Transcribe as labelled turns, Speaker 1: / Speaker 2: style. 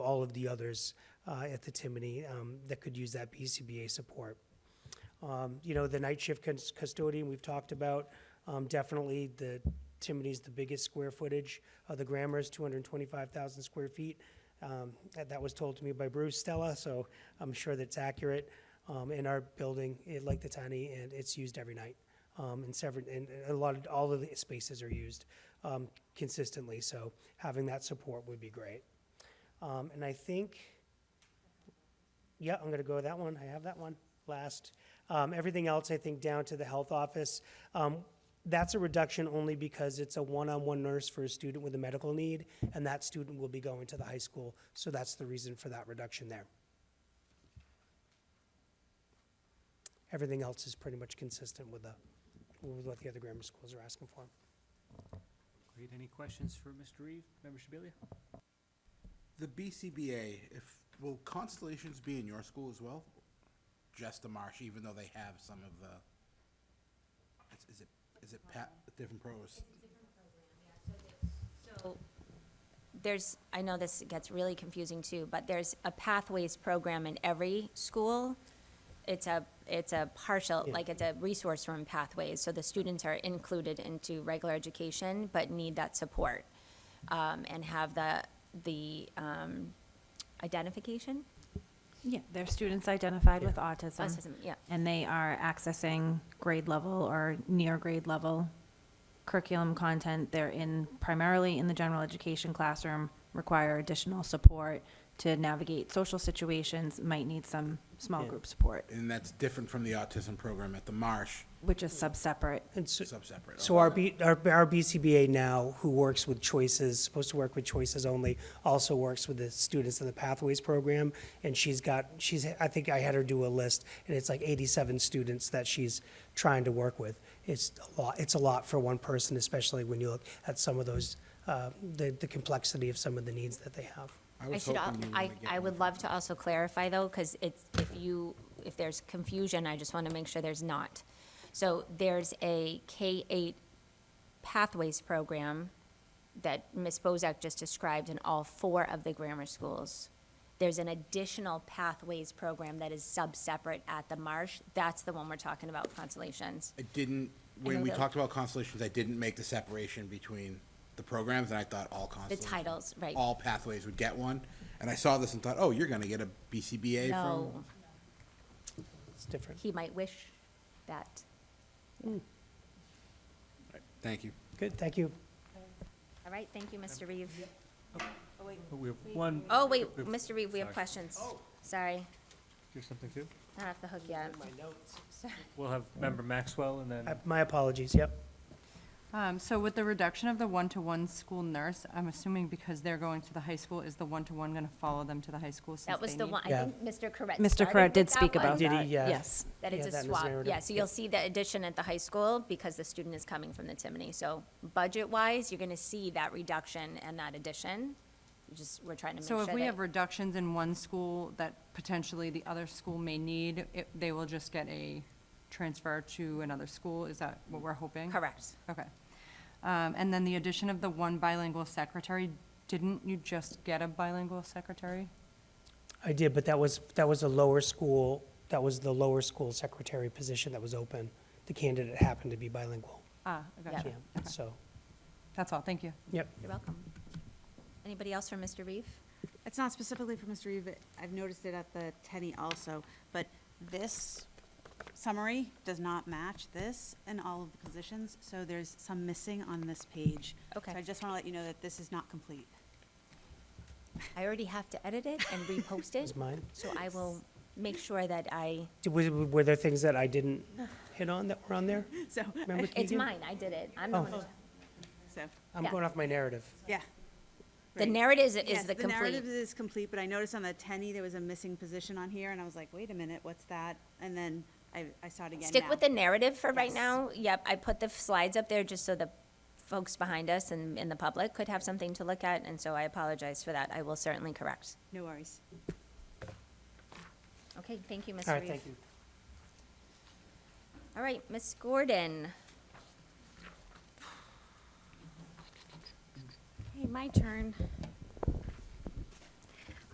Speaker 1: all of the others uh, at the Timony um, that could use that BCBA support. Um, You know, the night shift cus- custodian, we've talked about, um, definitely the Timony's the biggest square footage of the Grammars, 225,000 square feet. Um, That that was told to me by Bruce Stella, so I'm sure that's accurate. Um, In our building, it- like the tiny, and it's used every night. um, And several, and a lot of, all of the spaces are used um, consistently, so having that support would be great. Um, And I think, yeah, I'm gonna go with that one. I have that one last. Um, everything else, I think, down to the health office. Um, that's a reduction only because it's a one-on-one nurse for a student with a medical need, and that student will be going to the high school. So that's the reason for that reduction there. Everything else is pretty much consistent with the, with what the other grammar schools are asking for.
Speaker 2: Great, any questions for Mr. Reeve, Member Shabilia?
Speaker 3: The BCBA, if, will Constellations be in your school as well? Just the Marsh, even though they have some of the, it's- is it, is it pat, different pros?
Speaker 4: So there's, I know this gets really confusing too, but there's a pathways program in every school. It's a, it's a partial, like it's a resource room pathways, so the students are included into regular education, but need that support. Um, and have the, the, um, identification,
Speaker 5: Yeah, they're students identified with autism.
Speaker 4: Autism, yeah.
Speaker 5: And they are accessing grade level or near grade level curriculum content. They're in, primarily in the general education classroom, require additional support to navigate social situations, might need some small group support,
Speaker 3: And that's different from the autism program at the Marsh,
Speaker 5: which is sub-separate.
Speaker 1: And so,
Speaker 3: sub-separate.
Speaker 1: So our, B, our, our BCBA now, who works with choices, supposed to work with choices only, also works with the students in the Pathways program. And she's got, she's, I think I had her do a list, and it's like 87 students that she's trying to work with. It's a lot, it's a lot for one person, especially when you look at some of those, uh, the, the complexity of some of the needs that they have.
Speaker 4: I
Speaker 3: was
Speaker 4: should, al-
Speaker 3: hoping you were
Speaker 4: I,
Speaker 3: gonna get
Speaker 4: I
Speaker 3: one
Speaker 4: would love to also clarify though, because it's, if you, if there's confusion, I just want to make sure there's not. So there's a K-8 pathways program that Ms. Bozak just described in all four of the grammar schools. There's an additional pathways program that is sub-separate at the Marsh. That's the one we're talking about, Constellations.
Speaker 3: I didn't, when
Speaker 4: know
Speaker 3: we
Speaker 4: that-
Speaker 3: talked about Constellations, I didn't make the separation between the programs, and I thought all Constellations.
Speaker 4: titles, right.
Speaker 3: All pathways would get one, and I saw this and thought, oh, you're gonna get a BCBA
Speaker 4: No,
Speaker 3: from,
Speaker 1: It's different.
Speaker 4: he might wish that.
Speaker 3: thank you.
Speaker 1: Good, thank you.
Speaker 4: All right, thank you, Mr. Reeve.
Speaker 2: We have one,
Speaker 4: Oh, wait,
Speaker 2: If-
Speaker 4: Mr. Reeve, we have
Speaker 2: sorry.
Speaker 4: questions.
Speaker 3: Oh.
Speaker 4: Sorry,
Speaker 2: here's something too.
Speaker 4: not off the hook yet.
Speaker 2: We'll have Member Maxwell and
Speaker 1: Uh,
Speaker 2: then,
Speaker 1: my apologies, yep.
Speaker 6: Um, so with the reduction of the one-to-one school nurse, I'm assuming because they're going to the high school, is the one-to-one gonna follow them to the high school since
Speaker 4: That
Speaker 6: they
Speaker 4: was the
Speaker 6: need-
Speaker 4: one, I
Speaker 1: Yeah.
Speaker 4: think Mr. Correct.
Speaker 5: Mr. Corrett did speak about
Speaker 1: Did he?
Speaker 5: that,
Speaker 1: Yeah.
Speaker 5: yes.
Speaker 4: That
Speaker 1: Yeah,
Speaker 4: it's
Speaker 1: that in
Speaker 4: a
Speaker 1: his
Speaker 4: swap,
Speaker 1: narrative.
Speaker 4: yeah, so you'll see the addition at the high school because the student is coming from the Timony. So budget-wise, you're gonna see that reduction and that addition. You Just, we're trying to make
Speaker 6: So
Speaker 4: sure
Speaker 6: if we have
Speaker 4: that,
Speaker 6: reductions in one school that potentially the other school may need, it, they will just get a transfer to another school, is that what we're hoping?
Speaker 4: correct.
Speaker 6: Okay. Um, and then the addition of the one bilingual secretary, didn't you just get a bilingual secretary?
Speaker 1: I did, but that was, that was a lower school, that was the lower school secretary position that was open. The candidate happened to be bilingual.
Speaker 6: Ah, I got
Speaker 1: Yeah,
Speaker 6: you. Okay.
Speaker 1: so,
Speaker 6: That's all, thank you.
Speaker 1: yep.
Speaker 4: You're welcome. Anybody else from Mr. Reeve?
Speaker 7: It's not specifically for Mr. Reeve, but I've noticed it at the Tenny also, but this summary does not match this in all of the positions, so there's some missing on this page.
Speaker 4: Okay.
Speaker 7: So I just want to let you know that this is not complete.
Speaker 4: I already have to edit it and repost it,
Speaker 1: Is mine?
Speaker 4: so I will make sure that I,
Speaker 1: Did- Were were there things that I didn't hit on that were on there?
Speaker 7: So,
Speaker 1: Remember
Speaker 4: it's
Speaker 1: Keegan?
Speaker 4: mine, I did it. I'm the
Speaker 1: Oh.
Speaker 4: one. who-
Speaker 7: so,
Speaker 1: I'm
Speaker 4: yeah.
Speaker 1: going off my narrative.
Speaker 7: yeah.
Speaker 4: The
Speaker 7: Right.
Speaker 4: narrative is,
Speaker 7: Oh, Yes,
Speaker 4: is the
Speaker 7: The narrative
Speaker 4: complete,
Speaker 7: is complete, but I noticed on the Tenny, there was a missing position on here, and I was like, wait a minute, what's that? And then I, I saw it again
Speaker 4: stick
Speaker 7: now.
Speaker 4: with the narrative for right
Speaker 7: Yes.
Speaker 4: now. Yep, I put the slides up there just so the folks behind us and, and the public could have something to look at, and so I apologize for that. I will certainly correct.
Speaker 7: No worries.
Speaker 4: Okay, thank you, Ms.
Speaker 1: All
Speaker 4: Reeve.
Speaker 1: right, thank you.
Speaker 4: All right, Ms. Gordon.
Speaker 8: Hey, my turn.